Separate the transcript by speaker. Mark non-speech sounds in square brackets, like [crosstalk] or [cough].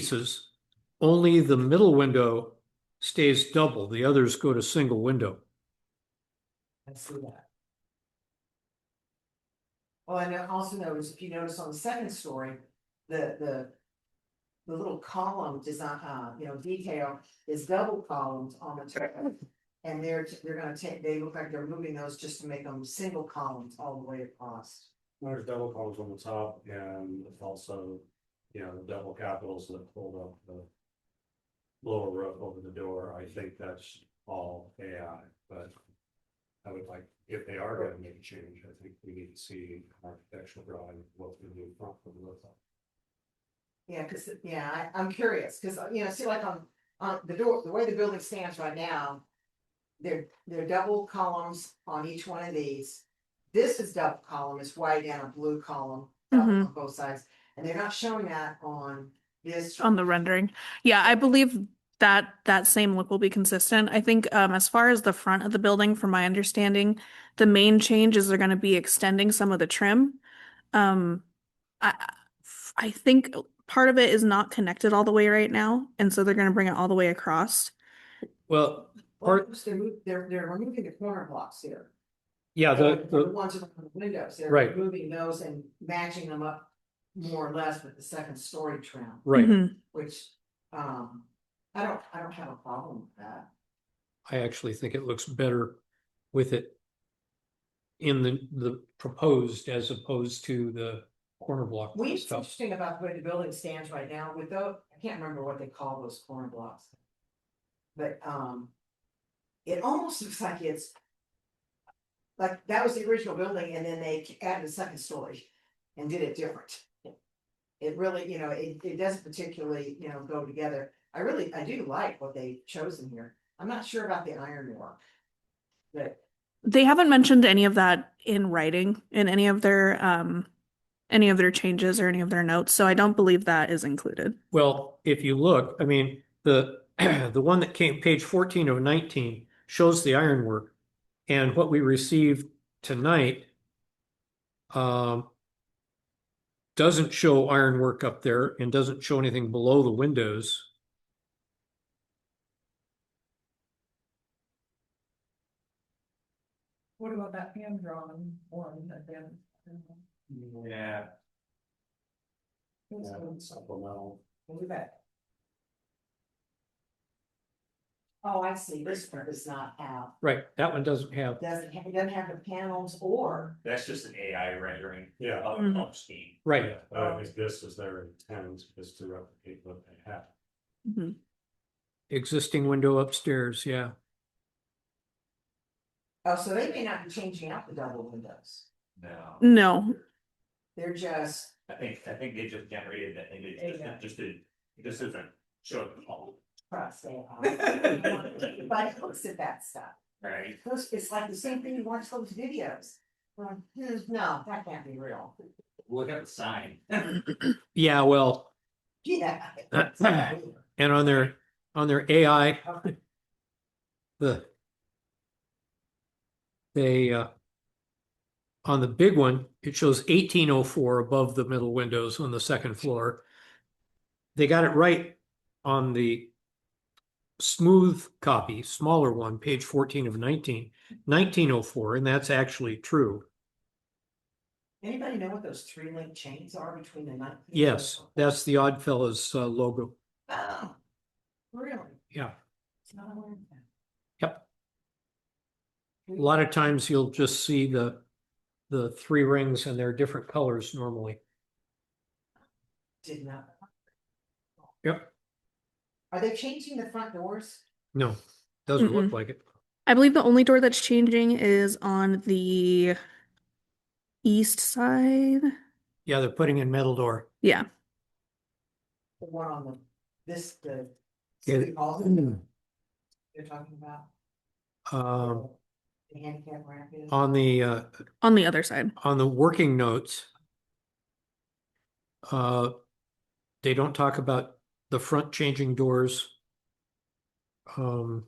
Speaker 1: pieces. Only the middle window stays double, the others go to single window.
Speaker 2: I see that. Well, and I also notice, if you notice on the second story, the, the. The little column design, uh, you know, detail is double columns on the top. And they're, they're gonna take, they look like they're moving those just to make them single columns all the way across.
Speaker 3: There's double columns on the top and Um, also, you know, the double capitals that pulled up the. Lower roof over the door, I think that's all AI, but. I would like, if they are gonna make a change, I think we need to see architectural drawing, what's gonna be in front of the roof.
Speaker 2: Yeah, cause, yeah, I, I'm curious, cause, uh, you know, see like on, on the door, the way the building stands right now. They're, they're double columns on each one of these. This is double column, it's white and a blue column uh,
Speaker 4: Mhm.
Speaker 1: Mm-hmm.
Speaker 2: on both sides, and th're not showing that on this.
Speaker 1: Uh,
Speaker 4: on the rendering. Yeah, I believe that that same look will be consistent. I think um as far as the front of the building, from my understanding, the main change is they're going to be extending some of the trim. Um, I I- I think part of it is not connected all the way right now, and so they're going to bring it all the way across.
Speaker 1: Well,
Speaker 2: Well,
Speaker 1: part-
Speaker 2: They're, mov- they're, they're removing the corner blocks here.
Speaker 1: yeah, the,
Speaker 2: The
Speaker 1: the,
Speaker 2: ones around the windows, they're
Speaker 1: Right.
Speaker 2: moving those and matching them up more or less with the second story trim.
Speaker 1: right,
Speaker 4: Mhm.
Speaker 2: which, um, I don't, I don't have a problem with that.
Speaker 1: I actually think it looks better with it. In the, the proposed as opposed to the corner block
Speaker 2: What's
Speaker 1: stuff.
Speaker 2: interesting about the way the building stands right now with the, I can't remember what they call those corner blocks. But, um, it almost [laughs] looks like it's. Like, that was the original building and then they added a second story and did it different. It really, you know, it, it doesn't particularly, you know, go together. I really, I do like what they've chosen here. I'm not sure about the ironwork. But
Speaker 4: They haven't mentioned any of that in writing in any of their um any of their changes or any of their notes, so I don't believe that is included.
Speaker 1: Well, if you look, I mean, the, [clears throat] the one that came, page fourteen of nineteen, shows the ironwork. And what we received tonight um, doesn't show ironwork up there and doesn't show anything below the windows.
Speaker 5: What about that hand drawn one that then?
Speaker 3: Yeah.
Speaker 5: This one,
Speaker 3: Supplemental,
Speaker 2: we'll be back. Oh, I see. This one is not out.
Speaker 1: Right, that one doesn't have,
Speaker 2: Doesn't, ha- it doesn't have the panels or,
Speaker 6: That's just an AI rendering
Speaker 3: yeah,
Speaker 6: of,
Speaker 4: Mhm.
Speaker 6: of scheme.
Speaker 1: right,
Speaker 6: Uh,
Speaker 3: I think this is their intent is to replicate what they have.
Speaker 4: Mhm.
Speaker 1: existing window upstairs, yeah.
Speaker 2: oh, so they may not be changing out the double windows.
Speaker 6: No,
Speaker 4: No,
Speaker 2: They're just,
Speaker 6: I think, I think they just generated that, and they just-
Speaker 5: AI.
Speaker 6: just, did, this isn't showing the whole,
Speaker 2: cross [laughs] it out. But it looks at that stuff.
Speaker 6: right?
Speaker 2: Those- It's like the same thing you watch those videos. Like, hmm, No, that can't be real.
Speaker 6: Look at the sign.
Speaker 1: Yeah, well,
Speaker 2: Yeah.
Speaker 1: and on their, on their AI, the they uh on the big one, it shows eighteen oh four above the middle windows on the second floor. They got it right on the smooth copy, smaller one, page fourteen of 19, 1904, and that's actually true.
Speaker 2: Anybody know what those three link chains are between the nine?
Speaker 1: Yes, that's the Oddfellows uh, logo.
Speaker 2: Oh, really?
Speaker 1: Yeah.
Speaker 2: It's not aware of that.
Speaker 1: A lot of times you'll just see the the three rings and they're different colors normally.
Speaker 2: Did not.
Speaker 1: Yep.
Speaker 2: Are they changing the front doors?
Speaker 1: No, doesn't look like it.
Speaker 4: I believe the only door that's changing is on the east side.
Speaker 1: Yeah, they're putting in metal door.
Speaker 4: Yeah.
Speaker 2: The one on the, this, the.
Speaker 1: Yeah. Mm.
Speaker 2: city hall that You're talking about.
Speaker 1: Um,
Speaker 2: The handicap ramp is.
Speaker 1: on the uh,
Speaker 4: On the other side.
Speaker 1: on the working notes, uh, they don't talk about the front changing doors. Um,